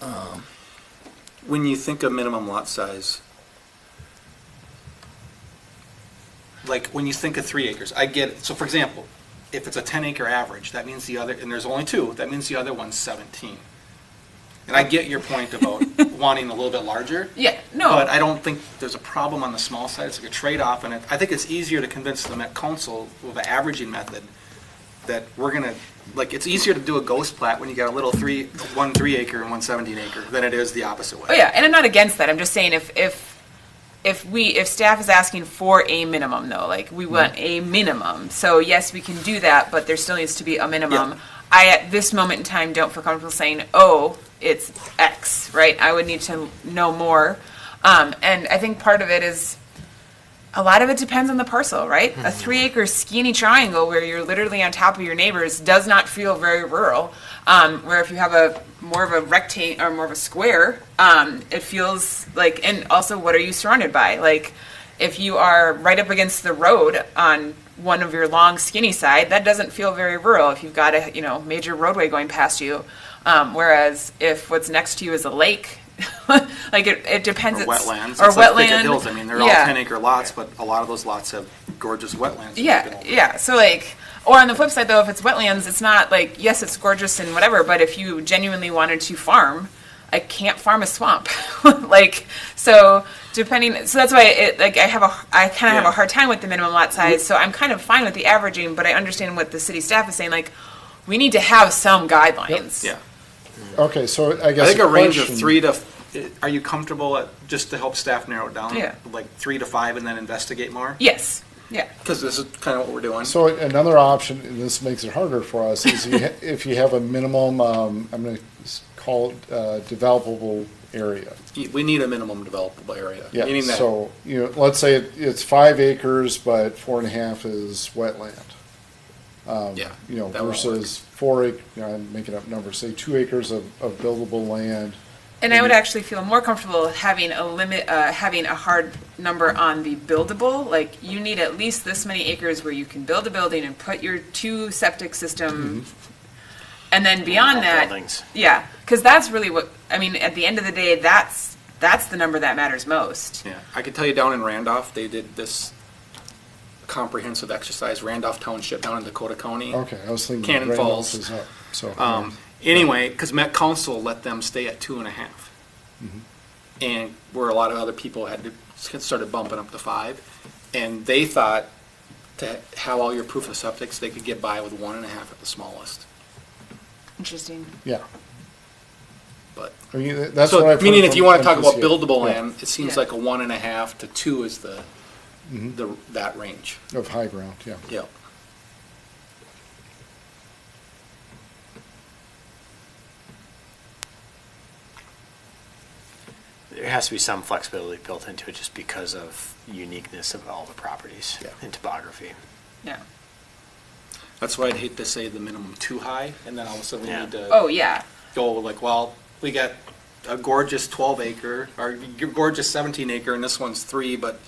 Um, When you think of minimum lot size, like when you think of three acres, I get it. So for example, if it's a ten acre average, that means the other, and there's only two, that means the other one's seventeen. And I get your point about wanting a little bit larger. Yeah, But no, I don't think there's a problem on the small side. It's like a trade-off, and it, I think it's easier to convince the Met Council with the averaging method that we're gonna, like, it's easier to do a ghost plat when you got a little three, one three acre and one seventeen acre than it is the opposite way. oh yeah, and I'm not against that, I'm just saying if, if, if we, if staff is asking for a minimum though, like, we want Mm-hmm. a minimum, so yes, we can do that, but there still needs to be a Yeah. minimum. I, at this moment in time, don't feel comfortable saying, oh, it's X, right, I would need to know more. Um, and I think part of it is, a lot of it depends on the parcel, right? Mm-hmm. A three acre skinny triangle where you're literally on top of your neighbors does not feel very rural. Um, where if you have a more of a rectangle or more of a square, um, it feels like, and also what are you surrounded by? Like if you are right up against the road on one of your long skinny side, that doesn't feel very rural if you've got a, you know, major roadway going past you. Um, whereas if what's next to you is a lake, like it, it depends. Or it's- wetlands. Or It's like Picket wetland. Hills. I mean, they're all Yeah. ten acre lots, but a lot of those lots have gorgeous wetlands. that you can Yeah, open. yeah. So like, or on the flip side though, if it's wetlands, it's not like yes, it's gorgeous and whatever. But if you genuinely wanted to farm, I can't farm a swamp. like so, depending. So that's why it like I have a I kind of have Yeah. a hard time with the minimum lot size. So I'm kind of fine with the averaging, but I understand what the city staff is saying. Like, we need to have some guidelines. Yeah. Okay, so I I guess. think a range of question- three to, are you comfortable at, just to help staff narrow it down? Yeah. Like three to five and then investigate more? Yes. Yeah. Because this is kind of what we're doing. So another option, and this makes it harder for us, is you ha- if you have a minimum, um, I'm going to call it uh, developable area. We need a minimum developable area. Yeah, Meaning that so, you know, let's say it- it's five acres, but four and a half is wetland. Yeah. um, You know, that won't work. versus four acre, you know, I'm making up numbers, say two acres of, of buildable land. And I would actually feel more comfortable having a limit, uh, having a hard number on the buildable. Like you need at least this many acres where you can build a building and put your two septic system. And then beyond that, Buildings. yeah, because that's really what I mean. At the end of the day, that's that's the number that matters most. Yeah, I could tell you down in Randolph, they did this comprehensive exercise, Randolph Township down in Dakota County. Okay, I was thinking. Cannon Randolph Falls. is up, So. Um, anyway, because Met Council let them stay at two and a half. Mm-hmm. And where a lot of other people had to, started bumping up to five. And they thought to have all your proof of septics, they could get by with one and a half at the smallest, Interesting. Yeah, but. I mean, that's what So, I've. meaning heard if from you want to talk about MPCA. buildable Yeah, land, it seems Yeah. like a one and a half to two is the, the, that range, Of high ground, Mm-hmm. yeah. yep. There has to be some flexibility built into it just because of uniqueness of all the properties Yeah. and topography. Yeah. That's why I'd hate to say the minimum too high, and then all of a sudden we Yeah. need to Oh yeah. go like, well, we got a gorgeous twelve acre, or g- gorgeous seventeen acre, and this one's three, but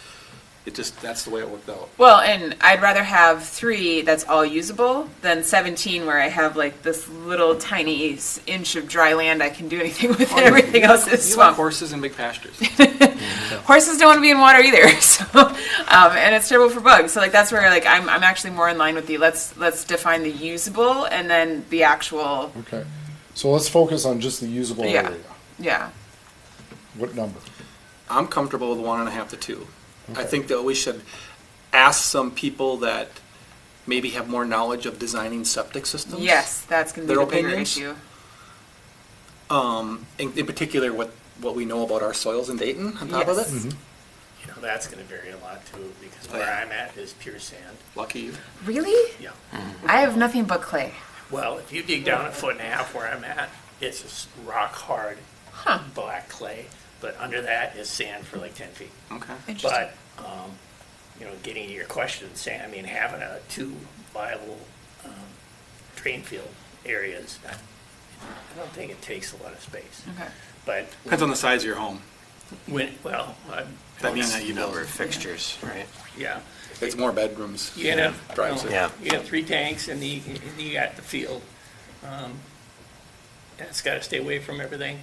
it just, that's the way it worked out. Well, and I'd rather have three that's all usable than 17 where I have like this little tiny s- inch of dry land I can do anything with and everything else is You like swamp. horses and big pastures. Horses don't want to be in water either, so um, and it's terrible for bugs. So like that's where like I'm, I'm actually more in line with the let's let's define the usable and then the actual Okay, so let's focus on just the usable Yeah. area. yeah What number? I'm comfortable with one and a half to two. I Okay. think that we should ask some people that maybe have more knowledge of designing septic systems. yes that's gonna be Their the bigger opinions? issue. In, in particular, what, what we know about our soils in Dayton on top of Yes. it. You know, that's gonna vary a lot too, because Oh, where yeah. I'm at is pure sand. Lucky you. Really, Yeah. I have nothing but clay. Well, if you dig down a foot and a half where I'm at, it's just rock hard, black clay, but under that is sand for like ten feet. Okay. Interesting. But, um, you know, getting to your question, Sam, I mean, having a two viable, um, drain field areas, I I don't think it takes a lot of space. okay. But Depends on the size of your home. when, well, I- That means that you Number know of fixtures, right? yeah. it's more bedrooms. You gotta have, Drives you it. know, Yeah. you got three tanks and you, and you got the field. Um, That's gotta stay away from everything.